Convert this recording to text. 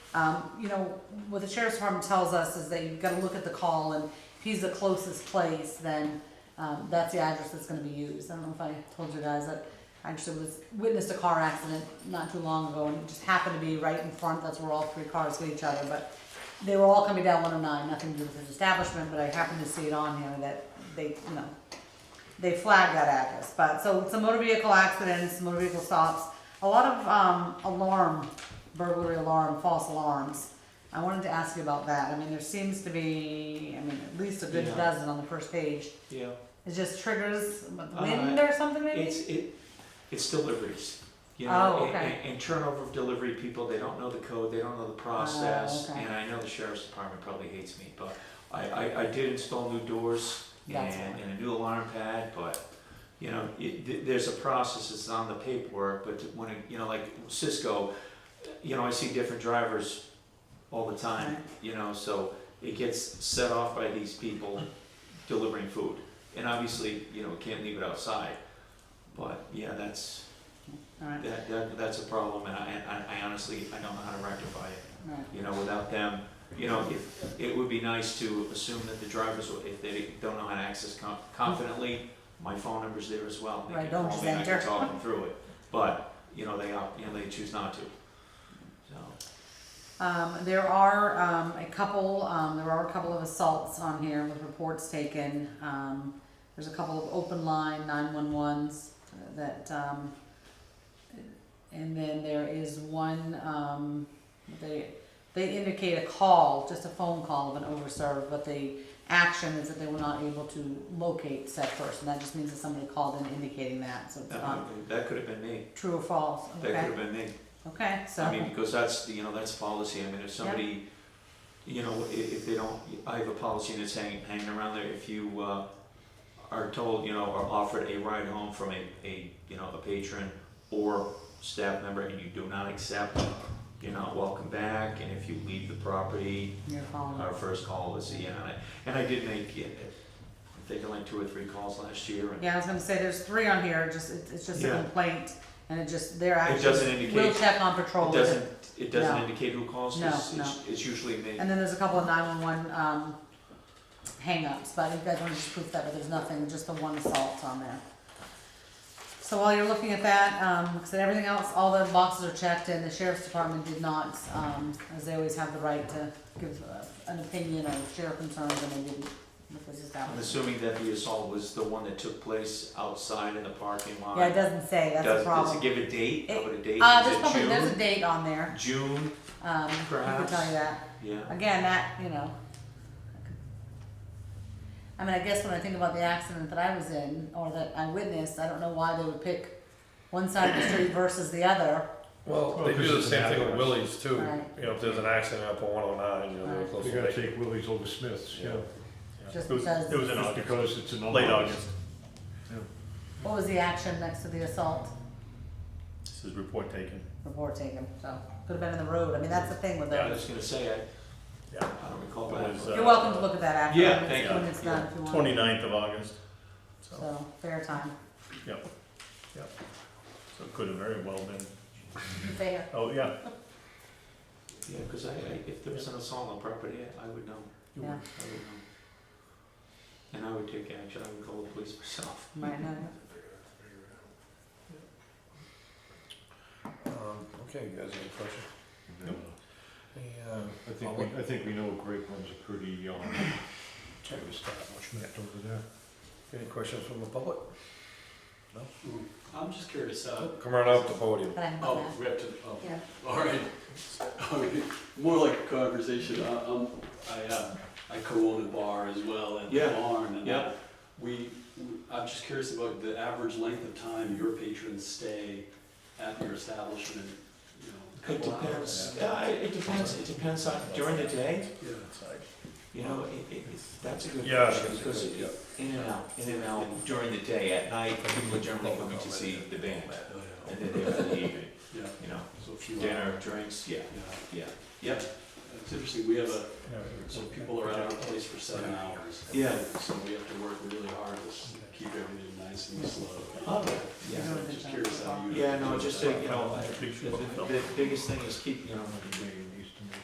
Um, you know, what the sheriff's department tells us is that you've gotta look at the call, and if he's the closest place, then, um, that's the address that's gonna be used. I don't know if I told you guys that I actually was, witnessed a car accident not too long ago, and it just happened to be right in front, that's where all three cars hit each other, but they were all coming down one oh nine, nothing to do with his establishment, but I happened to see it on here that they, you know, they flag that address, but, so it's a motor vehicle accidents, motor vehicle stops, a lot of, um, alarm, burglary alarm, false alarms. I wanted to ask you about that, I mean, there seems to be, I mean, at least a good Yeah. dozen on the first page, Yeah, it just triggers what, Uh, wind or something maybe? it's, it, it's deliveries, you Oh, know, and, okay. and- and turnover of delivery people, they don't know the code, they don't know the process. Oh, okay. And I know the sheriff's department probably hates me, but I, I, I did install new doors That's and, fine. and a new alarm pad, but, you know, it, th- there's a process, it's on the paperwork, but when, it- you know, like Cisco, you know, I see different drivers all the time, Right. you know, so it gets set off by these people delivering food. And obviously, you know, can't leave it outside, but yeah, that's, Alright, that, that, that's a problem, and I, I- I honestly, I don't know how to rectify it alright, you know, without them, you know, if, it would be nice to assume that the drivers, will- if they don't know how to access com- confidently, my phone number's there as well. They Right, can don't call just me, I can enter. talk them through it, but, you know, they, opt- you know, they choose not to, so. um, there are, um, a couple, um, there are a couple of assaults on here with reports taken, um, there's a couple of open line nine-one-ones that, um, and then there is one, um, they, they indicate a call, just a phone call of an overserved, but the action is that they were not able to locate said person, that just means that somebody called in indicating that, so it's That not would- that could have been me, true or false, that could okay, have been me, okay, so. I mean, because that's, you know, that's policy, I mean, if somebody, you know, i- if they don't, I have a policy that's hanging, hanging around there, if you, uh, are told, you know, or offered a ride home from a, a, you know, a patron or staff member and you do not accept, you're not welcome back, and if you leave the property, You're calling. our first call is, yeah, and I, and I did make, yeah, I think I like two or three calls last year, and Yeah, I was gonna say, there's three on here, just, it- it's just a Yeah. complaint, and it just, they're it doesn't actually, we'll indicate, check on it patrol. doesn't, it doesn't No. indicate who calls, No, it's, it's- it's usually me. And then there's a couple of nine-one-one, um, hangups, but you guys wanna just proof that, but there's nothing, just the one assault on there. So while you're looking at that, um, like I said, everything else, all the boxes are checked, and the sheriff's department did not, um, as they always have the right to give uh, an opinion or share concerns, and they didn't, with this I'm establishment. assuming that the assault was the one that took place outside in the parking lot. Yeah, it doesn't say, that's Does- the problem. Does it give a date? How about a date? Uh, Is there's it probably, there's a June? date on there, June, um, I can Perhaps. tell you that. yeah. Again, that, you know. I mean, I guess when I think about the accident that I was in or that I witnessed, I don't know why they would pick one side of the street versus the other. Well, Well, they 'cause do the it's same an thing with address. Willie's too, Right. you know, if there's an accident up on one oh nine, you know, they're Right. close You to gotta that. take Willie's over Smith's, yeah. Just It was- because, It was in August. Because it's in August. Late August. what was the action next to the assault This is report taken. report taken? So, could have been in the road. I mean, that's the thing with I those. was just gonna say, I, Yeah. I don't recall It was, that. uh, You're welcome to look at that after. Yeah, when it's- thank you. When it's done, if you want. Twenty-ninth of August, so, So, fair time. yep, yep. So it could have very well been, Fair. oh, yeah. Yeah, cause I, I, if there was an assault on the property, I I would know, you Yeah. I would know. And I would take action, I would call the police myself. Might not. were. Um, Okay, you guys have a question? Nope. The, uh, I think, we- I think we know Great One's a pretty, um, type establishment over there. Any questions from the public? I'm just curious, uh, Come right up to the podium. But I have oh, that. we have to, oh, Yeah. all right. Okay, More like a conversation, I, um, I, uh, I co-own a bar as well and a Yeah. barn and. uh, Yeah. We, I'm just curious about the average length of time your patrons stay at your establishment, you know. a It couple depends, hours. yeah, I- it depends, it depends on, during the day, Yeah. you know, it, it, it's- that's a good Yeah, question, that's a because good- it- in and out, in and out during the day, at night, people are generally coming to see the band. Oh, yeah. And then they have the evening, Yeah, you know, so a few hours. dinner, drinks, yeah, Yeah, yeah, yep. it's interesting, we have a, so people are at our place for seven hours. Yeah. So we have to work really hard to s- keep everything nice and slow. Oh, yeah. Yeah, I'm just curious how you. Yeah, no, just, uh, you know, Big the, shoe. the the biggest thing is keep, you know,